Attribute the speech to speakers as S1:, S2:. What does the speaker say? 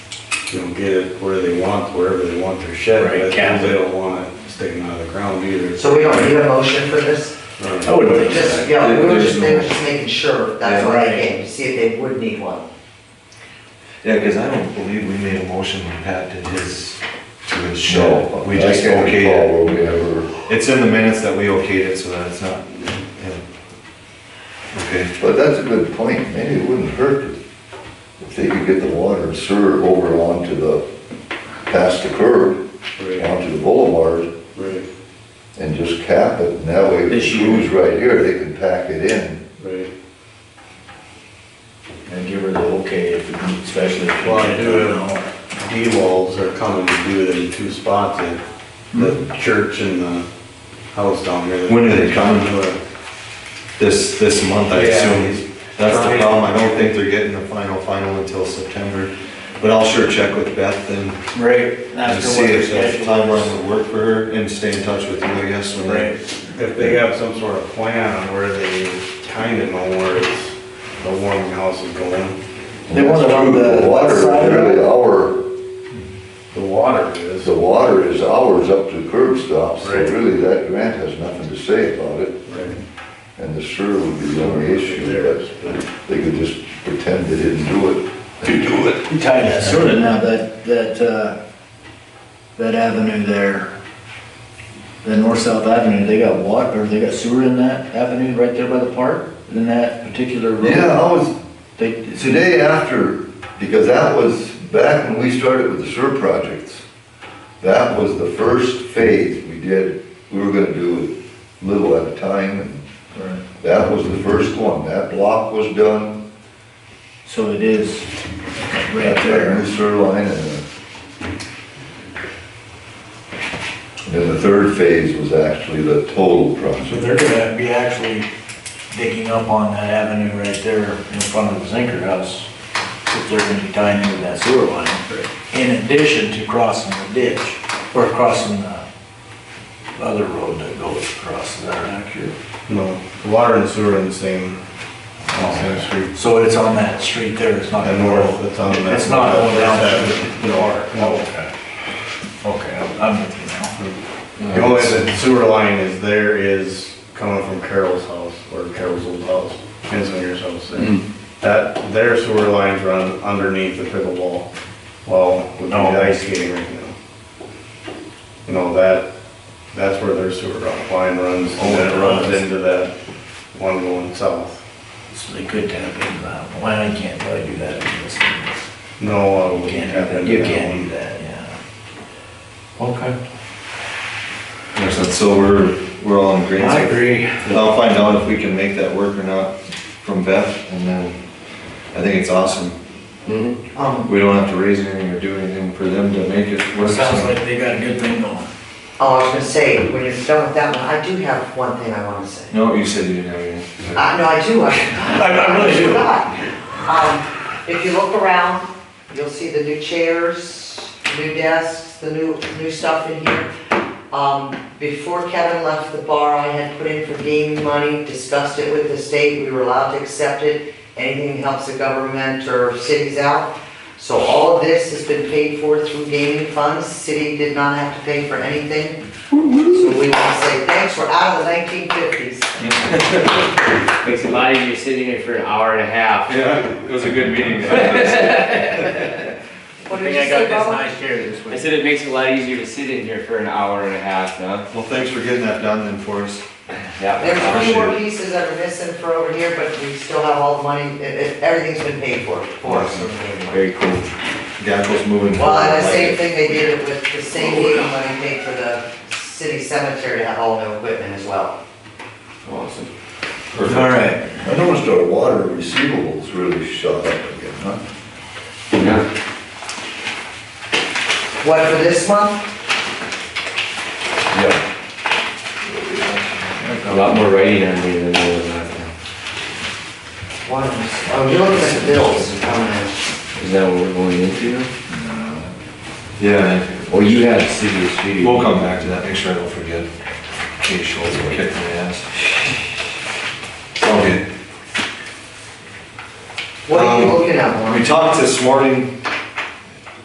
S1: you know, get it where they want, wherever they want their shed,
S2: Right,
S1: but as long
S2: cap
S1: as
S2: it.
S1: they don't want it sticking out of the ground either.
S3: So we don't need a motion for this?
S2: I wouldn't think
S3: Just, yeah, we were just, they were
S1: There's no-
S3: just making sure, that's why
S2: Right.
S3: they came, to see if they would need one.
S4: Yeah, because I don't believe we made a motion when Pat did his, to his show. We
S5: I
S4: just
S5: can't
S4: okayed it.
S5: recall where we ever-
S4: It's in the minutes that we okayed it, so that it's not, yeah. Okay,
S5: But that's a good point, maybe it wouldn't hurt if they could get the water and sewer over onto the, past the curb,
S1: Right,
S5: onto the boulevard,
S1: right,
S5: and just cap it, and that way, if
S2: This
S5: the
S2: year.
S5: crew's right here, they can pack it in.
S1: right.
S2: And give her the okay, if especially if
S1: Well, I
S2: you
S1: do
S2: do it
S1: have, D-walls are coming to do it in two spots, at
S2: Hmm.
S1: the church and the house down here.
S4: When are they coming?
S1: Uh,
S4: this, this month, I
S1: Yeah.
S4: assume. That's the problem, I don't think they're getting the final, final until September. But I'll sure check with Beth and
S2: Right.
S4: and
S2: After
S4: see
S2: what
S4: if
S2: their
S4: that
S2: schedule
S4: timeline
S2: was.
S4: would work for her and stay in touch with you, I guess, when they-
S1: Right, if they have some sort of plan on where they kinda know where it's, the warming house is going,
S2: They want it on the
S5: water is
S2: side road?
S5: really Our,
S1: the water is.
S5: the water is ours up to curb stops, so
S1: Right.
S5: really, that grant has nothing to say about it,
S1: Right.
S5: and the sewer would be the only issue,
S1: There.
S5: but they could just pretend they didn't do it.
S2: You tie that sort of now, that, that, uh, that avenue there, the north-south avenue, they got water, or they got sewer in that avenue right there by the park, in that particular road?
S5: Yeah, I was,
S2: They,
S5: Today after, because that was back when we started with the sewer projects, that was the first phase we did. We were gonna do it little at a time, and
S2: Right.
S5: that was the first one. That block was done,
S2: So it is right
S5: that new
S2: there.
S5: sewer line, and the- and then the third phase was actually the total
S2: So
S5: project.
S2: they're gonna be actually digging up on that avenue right there in front of the Zinker House, if they're gonna be tying into that sewer line, in addition to crossing the ditch, or crossing the other road that goes across there.
S1: No, the water and sewer in the same,
S2: Oh,
S1: on the same street.
S2: So it's on that street there, it's not.
S1: And north, it's on that.
S2: It's not going down.
S1: That- The water, no.
S2: Oh, Okay, I'm- I'm with you now.
S1: The only the sewer line is there is coming from Carol's house, or Carol's old house, Kinslinger's house there.
S2: Mm.
S1: That, their sewer lines run underneath the pickleball, well, with the
S2: Oh.
S1: ice skating right now. You know, that, that's where their sewer line runs,
S2: Oh,
S1: and then it runs into that one going south.
S2: So they could tap into that, well, you can't really do that in this.
S1: No, I
S2: You
S1: wouldn't
S2: can't
S1: tap
S2: do that,
S1: into
S2: you
S1: that
S2: can't
S1: one.
S2: do that, yeah.
S4: Okay. Understand, so we're, we're all in agreement.
S2: agree.
S4: I'll find out if we can make that work or not from Beth, and then I think it's awesome.
S3: Um,
S4: We don't have to raise anything or do anything for them to make it work.
S2: Sounds like they got a good thing going.
S3: Oh, I was gonna say, when you're done with that one, I do have one thing I wanna say.
S4: No, you said you didn't have anything.
S3: Uh, no, I do, I.
S2: I really do.
S3: forgot. Um, if you look around, you'll see the new chairs, new desks, the new, new stuff in here. Um, before Kevin left the bar, I had put in for gaming money, discussed it with the state, we were allowed to accept it. Anything that helps the government or cities out. So all of this has been paid for through gaming funds, city did not have to pay for anything. So we wanna say thanks, we're out of the nineteen fifties.
S6: Makes it a lot easier sitting here for an hour and a half.
S4: Yeah, it was a good meeting.
S3: What did you say, Bubba?
S2: chair this
S6: I said it makes it a lot easier to sit in here for an hour and a half, huh?
S4: Well, thanks for getting that done then for us.
S6: Yeah.
S3: There's three more pieces that are missing for over here, but we still have all the money, it, it, everything's been paid for, for us.
S6: Very cool.
S4: Gackel's moving.
S3: Well, and the
S4: forward.
S3: same thing they did it with the same meeting money paid for the city cemetery to have all new equipment as well.
S6: Awesome.
S5: Perfect.
S2: All right,
S5: I noticed our water receivables really shot up again, huh?
S6: Yeah.
S3: What for this month?
S5: Yeah.
S6: A lot more writing on me than there was last time.
S3: One, oh, you're looking at the bills coming in.
S6: Is that what we're going into?
S4: Yeah,
S6: Well, you had city of street.
S4: we'll come back to that, make sure I don't forget. Kate Schultz will kick my ass. Okay.
S3: What are you
S4: Um,
S3: looking at, Warren?
S6: Um,
S4: We talked this morning